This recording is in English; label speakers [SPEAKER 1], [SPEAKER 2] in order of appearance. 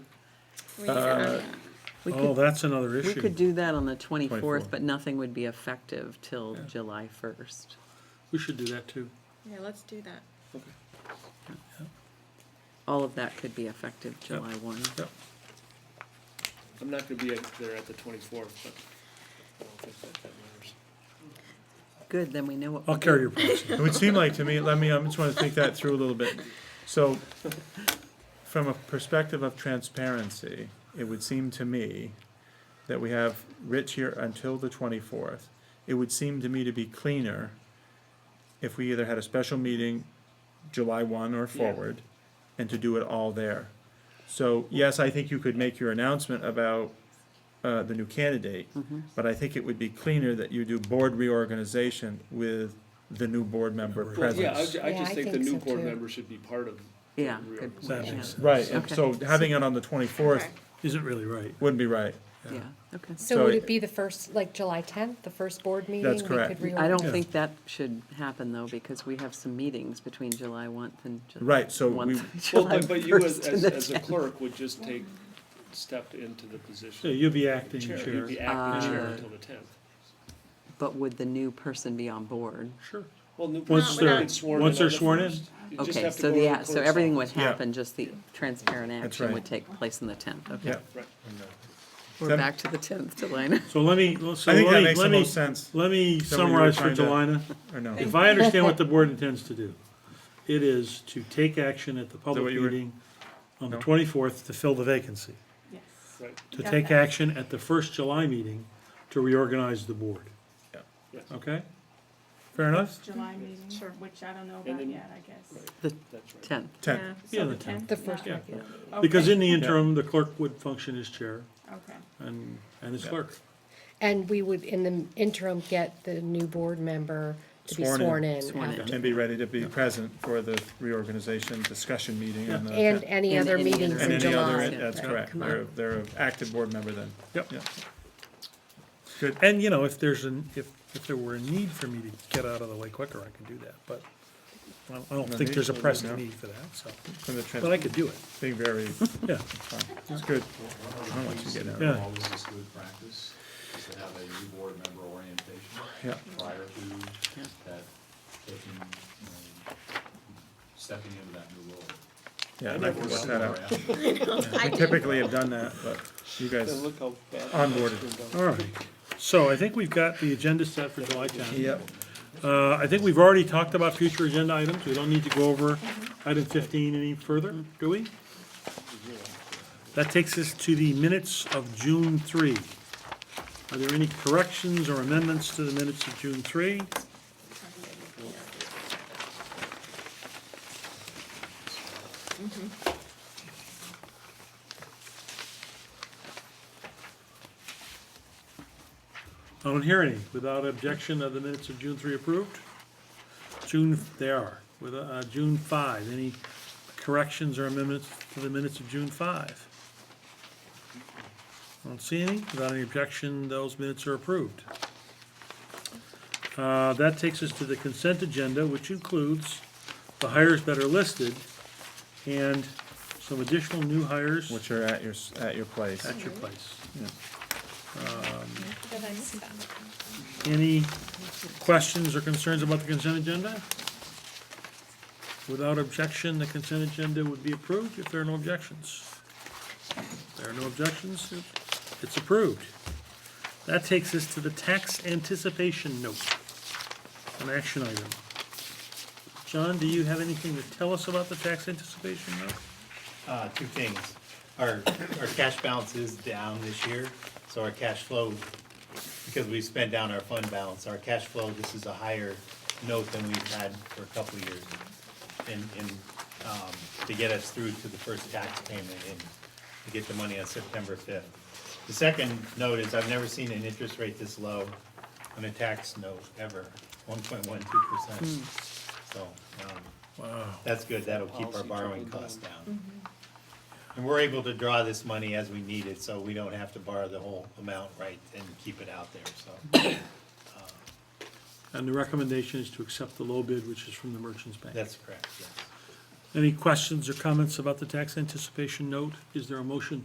[SPEAKER 1] Where is it on that?
[SPEAKER 2] We
[SPEAKER 3] Oh,
[SPEAKER 2] could,
[SPEAKER 3] that's another
[SPEAKER 2] we
[SPEAKER 3] issue.
[SPEAKER 2] could do that on the
[SPEAKER 3] 24th.
[SPEAKER 2] twenty-fourth, but nothing would be effective till July first.
[SPEAKER 3] We should do that too.
[SPEAKER 1] Yeah, let's do that.
[SPEAKER 2] All of that could be effective July one.
[SPEAKER 3] Yep.
[SPEAKER 4] I'm not gonna be at- there at the twenty-fourth, but I don't think that, that matters.
[SPEAKER 2] Good, then we know what.
[SPEAKER 3] I'll
[SPEAKER 2] we're
[SPEAKER 3] carry
[SPEAKER 2] doing.
[SPEAKER 3] your proxy. It would seem like to me, let me, I just wanna think that through a little bit. So, from a perspective of transparency, it would seem to me that we have Rich here until the twenty-fourth. It would seem to me to be cleaner if we either had a special meeting July one or forward, and to do it all there. So, yes, I think you could make your announcement about, uh, the new candidate, but I think it would be cleaner that you do board reorganization with the new board member
[SPEAKER 4] Well, yeah, I
[SPEAKER 3] presence.
[SPEAKER 4] ju- I
[SPEAKER 5] Yeah,
[SPEAKER 4] just
[SPEAKER 5] I
[SPEAKER 4] think the
[SPEAKER 5] think
[SPEAKER 4] new
[SPEAKER 5] so,
[SPEAKER 4] board
[SPEAKER 5] too.
[SPEAKER 4] member should be part of. the
[SPEAKER 2] Yeah, good point,
[SPEAKER 4] reorganization.
[SPEAKER 2] yeah.
[SPEAKER 3] Right, and
[SPEAKER 2] Okay.
[SPEAKER 3] so having it on the twenty-fourth
[SPEAKER 1] Okay.
[SPEAKER 6] Isn't really right.
[SPEAKER 3] wouldn't be right.
[SPEAKER 2] Yeah, okay.
[SPEAKER 5] So
[SPEAKER 3] So
[SPEAKER 5] would
[SPEAKER 3] it-
[SPEAKER 5] it be the first, like July tenth, the first board meeting? we
[SPEAKER 3] correct.
[SPEAKER 5] could
[SPEAKER 2] I don't
[SPEAKER 3] Yeah.
[SPEAKER 2] think that should happen though, because we have some meetings between July one and. Ju-
[SPEAKER 3] Right, so
[SPEAKER 2] 1th,
[SPEAKER 3] we-
[SPEAKER 4] Well,
[SPEAKER 2] July
[SPEAKER 4] but, but you as,
[SPEAKER 2] 1st and
[SPEAKER 4] as,
[SPEAKER 2] the
[SPEAKER 4] as a
[SPEAKER 2] 10th.
[SPEAKER 4] clerk would just take, step into the position.
[SPEAKER 6] you'll be acting
[SPEAKER 4] Chair,
[SPEAKER 6] chair.
[SPEAKER 4] you'd be acting chair
[SPEAKER 2] Uh,
[SPEAKER 4] until the tenth.
[SPEAKER 2] But would the new person be on board?
[SPEAKER 4] Sure. Well, new.
[SPEAKER 6] Once
[SPEAKER 4] board
[SPEAKER 1] they're-
[SPEAKER 4] gets sworn
[SPEAKER 6] once
[SPEAKER 4] on
[SPEAKER 6] they're
[SPEAKER 4] the
[SPEAKER 6] sworn in.
[SPEAKER 4] first. You just
[SPEAKER 2] Okay,
[SPEAKER 4] have to
[SPEAKER 2] so
[SPEAKER 4] go to
[SPEAKER 2] the,
[SPEAKER 4] the
[SPEAKER 2] a- so
[SPEAKER 4] clerk's
[SPEAKER 2] everything would
[SPEAKER 4] office.
[SPEAKER 3] Yeah.
[SPEAKER 2] happen, just the transparent action
[SPEAKER 3] right.
[SPEAKER 2] would take place on the tenth, okay?
[SPEAKER 3] Yeah,
[SPEAKER 4] Right.
[SPEAKER 2] We're
[SPEAKER 3] Then-
[SPEAKER 2] back to the tenth, Delana.
[SPEAKER 6] So let me, so
[SPEAKER 3] I think that
[SPEAKER 6] let me,
[SPEAKER 3] makes the
[SPEAKER 6] let me,
[SPEAKER 3] most sense.
[SPEAKER 6] let me
[SPEAKER 3] Is that what you were
[SPEAKER 6] summarize for
[SPEAKER 3] trying
[SPEAKER 6] Delina.
[SPEAKER 3] or no?
[SPEAKER 6] If I understand what the board intends to do, it is to take action at the
[SPEAKER 3] what
[SPEAKER 6] public
[SPEAKER 3] you were-
[SPEAKER 6] meeting on the
[SPEAKER 3] No?
[SPEAKER 6] twenty-fourth to fill the vacancy.
[SPEAKER 1] Yes.
[SPEAKER 4] Right,
[SPEAKER 6] To
[SPEAKER 1] Got
[SPEAKER 6] take
[SPEAKER 1] that.
[SPEAKER 6] action at the first July meeting to reorganize the board,
[SPEAKER 4] yes.
[SPEAKER 6] okay?
[SPEAKER 3] Fair enough?
[SPEAKER 7] July meeting, sure, which I don't know
[SPEAKER 4] And
[SPEAKER 7] about
[SPEAKER 4] then-
[SPEAKER 7] yet, I guess.
[SPEAKER 4] That's right.
[SPEAKER 2] Tenth,
[SPEAKER 3] Ten.
[SPEAKER 7] So
[SPEAKER 6] Yeah, the tenth.
[SPEAKER 5] The first
[SPEAKER 6] Yeah.
[SPEAKER 5] regular.
[SPEAKER 7] Okay,
[SPEAKER 6] Because in the interim, the clerk would function as chair
[SPEAKER 7] Okay,
[SPEAKER 6] and, and as
[SPEAKER 3] Yeah.
[SPEAKER 6] clerk.
[SPEAKER 5] And we would, in the interim, get the new board member to be
[SPEAKER 3] Sworn in.
[SPEAKER 5] sworn in.
[SPEAKER 2] Sworn in.
[SPEAKER 5] after.
[SPEAKER 3] And be ready to be present for the reorganization discussion meeting on the.
[SPEAKER 5] And any
[SPEAKER 2] And
[SPEAKER 5] other
[SPEAKER 2] any
[SPEAKER 5] meetings
[SPEAKER 2] other-
[SPEAKER 3] And
[SPEAKER 5] in
[SPEAKER 3] any other,
[SPEAKER 5] July.
[SPEAKER 2] Yeah,
[SPEAKER 3] that's
[SPEAKER 2] right,
[SPEAKER 3] correct.
[SPEAKER 2] come on.
[SPEAKER 3] They're, they're an active board member then.
[SPEAKER 6] Yep.
[SPEAKER 3] Yeah.
[SPEAKER 6] Good.
[SPEAKER 8] And, you know, if there's an, if, if there were a need for me to get out of the way quicker, I could do that, but I don't- I don't
[SPEAKER 3] No
[SPEAKER 8] think
[SPEAKER 3] need?
[SPEAKER 8] there's a
[SPEAKER 3] No need, no.
[SPEAKER 8] pressing need for that, so,
[SPEAKER 3] From the trans,
[SPEAKER 8] but I could do it,
[SPEAKER 3] being very,
[SPEAKER 8] yeah.
[SPEAKER 3] it's good.
[SPEAKER 9] One
[SPEAKER 3] I'll
[SPEAKER 9] of the
[SPEAKER 3] let you
[SPEAKER 9] things
[SPEAKER 3] get
[SPEAKER 9] that
[SPEAKER 3] out.
[SPEAKER 8] Yeah.
[SPEAKER 9] always is good practice is to have a new board member orientation
[SPEAKER 3] Yeah.
[SPEAKER 9] prior to
[SPEAKER 2] Yeah.
[SPEAKER 9] that, taking, you know, stepping into that new role.
[SPEAKER 3] Yeah, and I can work that out.
[SPEAKER 1] I
[SPEAKER 3] We
[SPEAKER 1] do.
[SPEAKER 3] typically have done that, but you
[SPEAKER 4] Then
[SPEAKER 3] guys,
[SPEAKER 4] look how bad.
[SPEAKER 3] Onboarded.
[SPEAKER 4] that's been done.
[SPEAKER 6] All right, so I think we've got the agenda set for July tenth.
[SPEAKER 3] yep,
[SPEAKER 6] Uh, I think we've already talked about future agenda items, we don't need to go over item fifteen any further, do we? That takes us to the minutes of June three. Are there any corrections or amendments to the minutes of June three? I don't hear any. Without objection, are the minutes of June three approved? June, they are. With, uh, June five, any corrections or amendments to the minutes of June five? I Don't see any. Without any objection, those minutes are approved. Uh, that takes us to the consent agenda, which includes the hires that are listed and some additional new hires
[SPEAKER 3] which are at your, s- at your place.
[SPEAKER 6] at your place.
[SPEAKER 3] Yeah.
[SPEAKER 1] Did I miss that?
[SPEAKER 6] Any questions or concerns about the consent agenda? Without objection, the consent agenda would be approved if there are no objections. There are no objections, it's approved. That takes us to the tax anticipation note, an action item. John, do you have anything to tell us about the tax anticipation note?
[SPEAKER 10] Uh, two things. Our, our cash balance is down this year, so our cash flow, because we spent down our fund balance, our cash flow, this is a higher note than we've had for a couple of years. And, and, um, to get us through to the first tax payment and to get the money on September fifth. The second note is I've never seen an interest rate this low on a tax note ever, one point one two percent. So, um, that's good. That'll keep our
[SPEAKER 4] Policy
[SPEAKER 10] borrowing
[SPEAKER 4] trickle
[SPEAKER 10] costs
[SPEAKER 4] down.
[SPEAKER 10] down. And we're able to draw this money as we need it, so we don't have to borrow the whole amount, right, and keep it out there, so
[SPEAKER 6] And the recommendation is to accept the low bid, which is from the Merchants Bank.
[SPEAKER 10] that's correct, yes.
[SPEAKER 6] Any questions or comments about the tax anticipation note? Is there a motion